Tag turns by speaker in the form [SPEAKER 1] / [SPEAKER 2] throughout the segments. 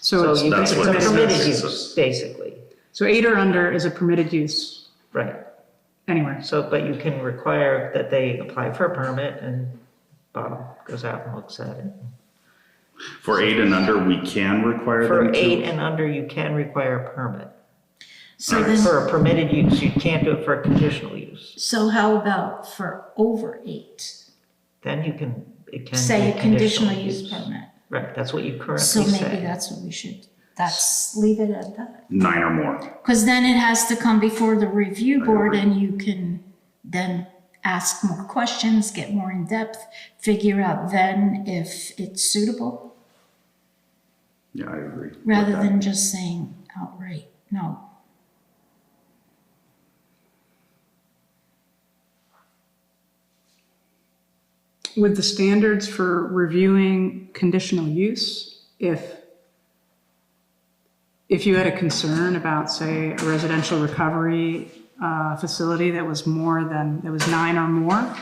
[SPEAKER 1] So
[SPEAKER 2] So you-
[SPEAKER 1] it's,
[SPEAKER 3] That's
[SPEAKER 2] it's
[SPEAKER 3] what
[SPEAKER 2] a
[SPEAKER 3] this is.
[SPEAKER 2] permitted
[SPEAKER 3] It's a-
[SPEAKER 2] use, basically,
[SPEAKER 1] so eight or under is a permitted use
[SPEAKER 2] right.
[SPEAKER 1] anywhere.
[SPEAKER 2] So, but you can require that they apply for a permit and Bob goes out and looks at it.
[SPEAKER 3] For eight and under, we can require
[SPEAKER 2] For
[SPEAKER 3] them to.
[SPEAKER 2] eight and under, you can require a permit.
[SPEAKER 4] So then,
[SPEAKER 2] For a permitted use, you can't do it for a conditional use.
[SPEAKER 4] so how about for over eight?
[SPEAKER 2] Then you can, it can.
[SPEAKER 4] Say
[SPEAKER 2] be
[SPEAKER 4] a conditional use permit.
[SPEAKER 2] Right, that's what you currently
[SPEAKER 4] So maybe
[SPEAKER 2] say.
[SPEAKER 4] that's what we should, that's, leave it at that.
[SPEAKER 3] Nine or more.
[SPEAKER 4] Because then it has to come before the review board
[SPEAKER 3] agree.
[SPEAKER 4] and you can then ask more questions, get more in-depth, figure out then if it's suitable,
[SPEAKER 3] Yeah, I agree. with
[SPEAKER 4] rather
[SPEAKER 3] that.
[SPEAKER 4] than just saying outright, no.
[SPEAKER 1] With the standards for reviewing conditional use, if, if you had a concern about, say, a residential recovery uh, facility that was more than, that was nine or more,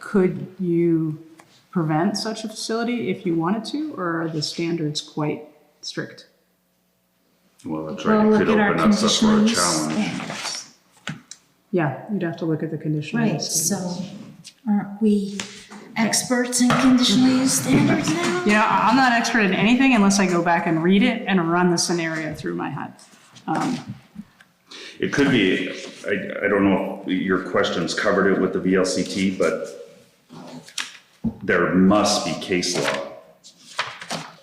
[SPEAKER 1] could you prevent such a facility if you wanted to, or are the standards quite strict?
[SPEAKER 3] Well, that's right.
[SPEAKER 4] Well,
[SPEAKER 3] It
[SPEAKER 4] look
[SPEAKER 3] could
[SPEAKER 4] at our
[SPEAKER 3] open us up for
[SPEAKER 4] conditional
[SPEAKER 3] a
[SPEAKER 4] use
[SPEAKER 3] challenge.
[SPEAKER 4] standards.
[SPEAKER 1] Yeah, you'd have to look at the conditional
[SPEAKER 4] Right,
[SPEAKER 1] use.
[SPEAKER 4] so aren't we experts in conditional use standards now?
[SPEAKER 1] You know, I- I'm not expert in anything unless I go back and read it and run the scenario through my head.
[SPEAKER 3] It could be, I, I don't know if your questions covered it with the VLCT, but there must be case law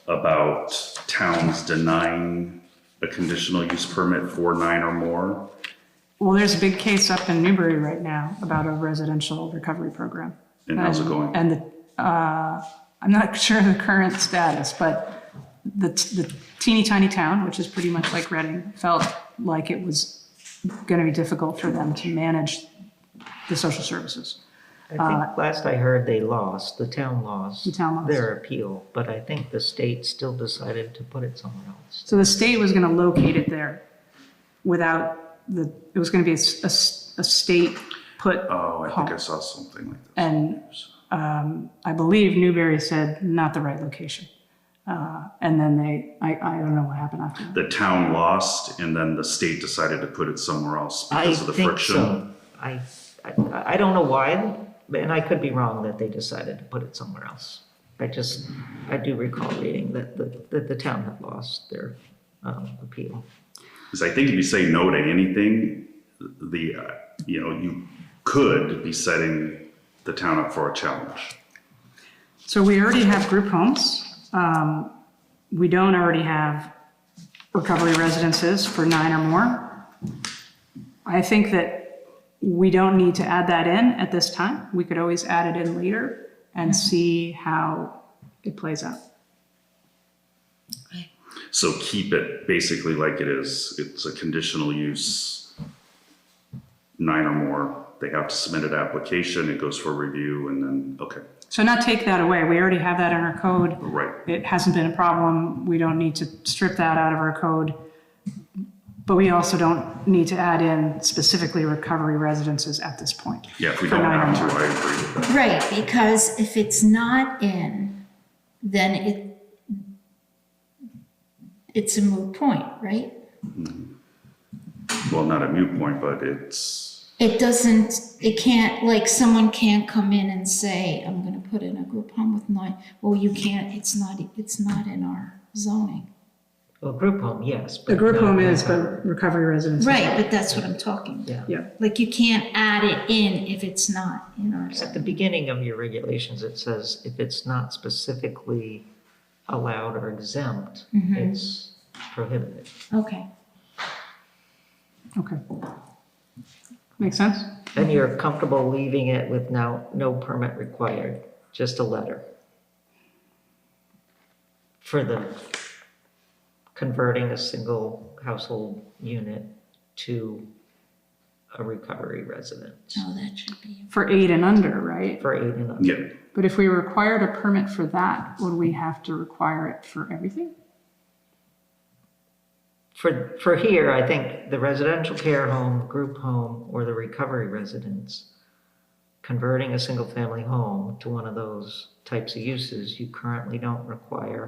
[SPEAKER 3] about towns denying a conditional use permit for nine or more.
[SPEAKER 1] Well, there's a big case up in Newbury right now about a residential recovery program.
[SPEAKER 3] And how's it going?
[SPEAKER 1] And, the, uh, I'm not sure of the current status, but the, the teeny tiny town, which is pretty much like Reading, felt like it was going to be difficult for them to manage the social services.
[SPEAKER 2] I think last I heard, they lost, the town lost.
[SPEAKER 1] The town lost.
[SPEAKER 2] Their appeal, but I think the state still decided to put it somewhere else.
[SPEAKER 1] So the state was going to locate it there without the, it was going to be a, s- a s- a state put.
[SPEAKER 3] Oh, I think I
[SPEAKER 1] Huh.
[SPEAKER 3] saw something like that.
[SPEAKER 1] And um, I believe Newberry said not the right location. Uh, And then they, I, I don't know what happened after that.
[SPEAKER 3] The town lost and then the state decided to put it somewhere else
[SPEAKER 2] I
[SPEAKER 3] because of the
[SPEAKER 2] think
[SPEAKER 3] friction.
[SPEAKER 2] so. I, I, I don't know why, and I could be wrong that they decided to put it somewhere else. I just, I do recall reading that, the- that the town had lost their um, appeal.
[SPEAKER 3] Because I think if you say no to anything, the, uh, you know, you could be setting the town up for a challenge.
[SPEAKER 1] So we already have group homes. Um, We don't already have recovery residences for nine or more. I think that we don't need to add that in at this time. We could always add it in later and see how it plays out.
[SPEAKER 3] So keep it basically like it is. It's a conditional use, nine or more. They have to submit an application, it goes for review, and then, okay,
[SPEAKER 1] So not take that away. We already have that in our code.
[SPEAKER 3] right.
[SPEAKER 1] it hasn't been a problem, we don't need to strip that out of our code. But we also don't need to add in specifically recovery residences at this point.
[SPEAKER 3] Yeah, if we
[SPEAKER 1] For
[SPEAKER 3] don't
[SPEAKER 1] nine or
[SPEAKER 3] have to,
[SPEAKER 1] more.
[SPEAKER 3] I agree with that.
[SPEAKER 4] Right, because if it's not in, then it, it's a moot point, right?
[SPEAKER 3] Well, not a mute point, but it's,
[SPEAKER 4] It doesn't, it can't, like, someone can't come in and say, I'm gonna put in a group home with nine, well, you can't, it's not, it's not in our zoning.
[SPEAKER 2] Well, group home, yes.
[SPEAKER 1] The
[SPEAKER 2] but
[SPEAKER 1] group
[SPEAKER 2] not
[SPEAKER 1] home is,
[SPEAKER 2] recovery.
[SPEAKER 1] but recovery residences.
[SPEAKER 4] Right, but that's what I'm talking about.
[SPEAKER 2] Yeah.
[SPEAKER 1] Yeah,
[SPEAKER 4] Like, you can't add it in if it's not in our
[SPEAKER 2] At the
[SPEAKER 4] zoning.
[SPEAKER 2] beginning of your regulations, it says if it's not specifically allowed or exempt, it's prohibited.
[SPEAKER 4] Okay,
[SPEAKER 1] okay. Makes sense?
[SPEAKER 2] And you're comfortable leaving it with now, no permit required, just a letter? For the converting a single household unit to a recovery residence
[SPEAKER 4] so that should be,
[SPEAKER 1] For eight and under, right?
[SPEAKER 2] for eight and up?
[SPEAKER 3] yeah,
[SPEAKER 1] But if we required a permit for that, would we have to require it for everything?
[SPEAKER 2] For, for here, I think the residential care home, group home, or the recovery residence, converting a single-family home to one of those types of uses, you currently don't require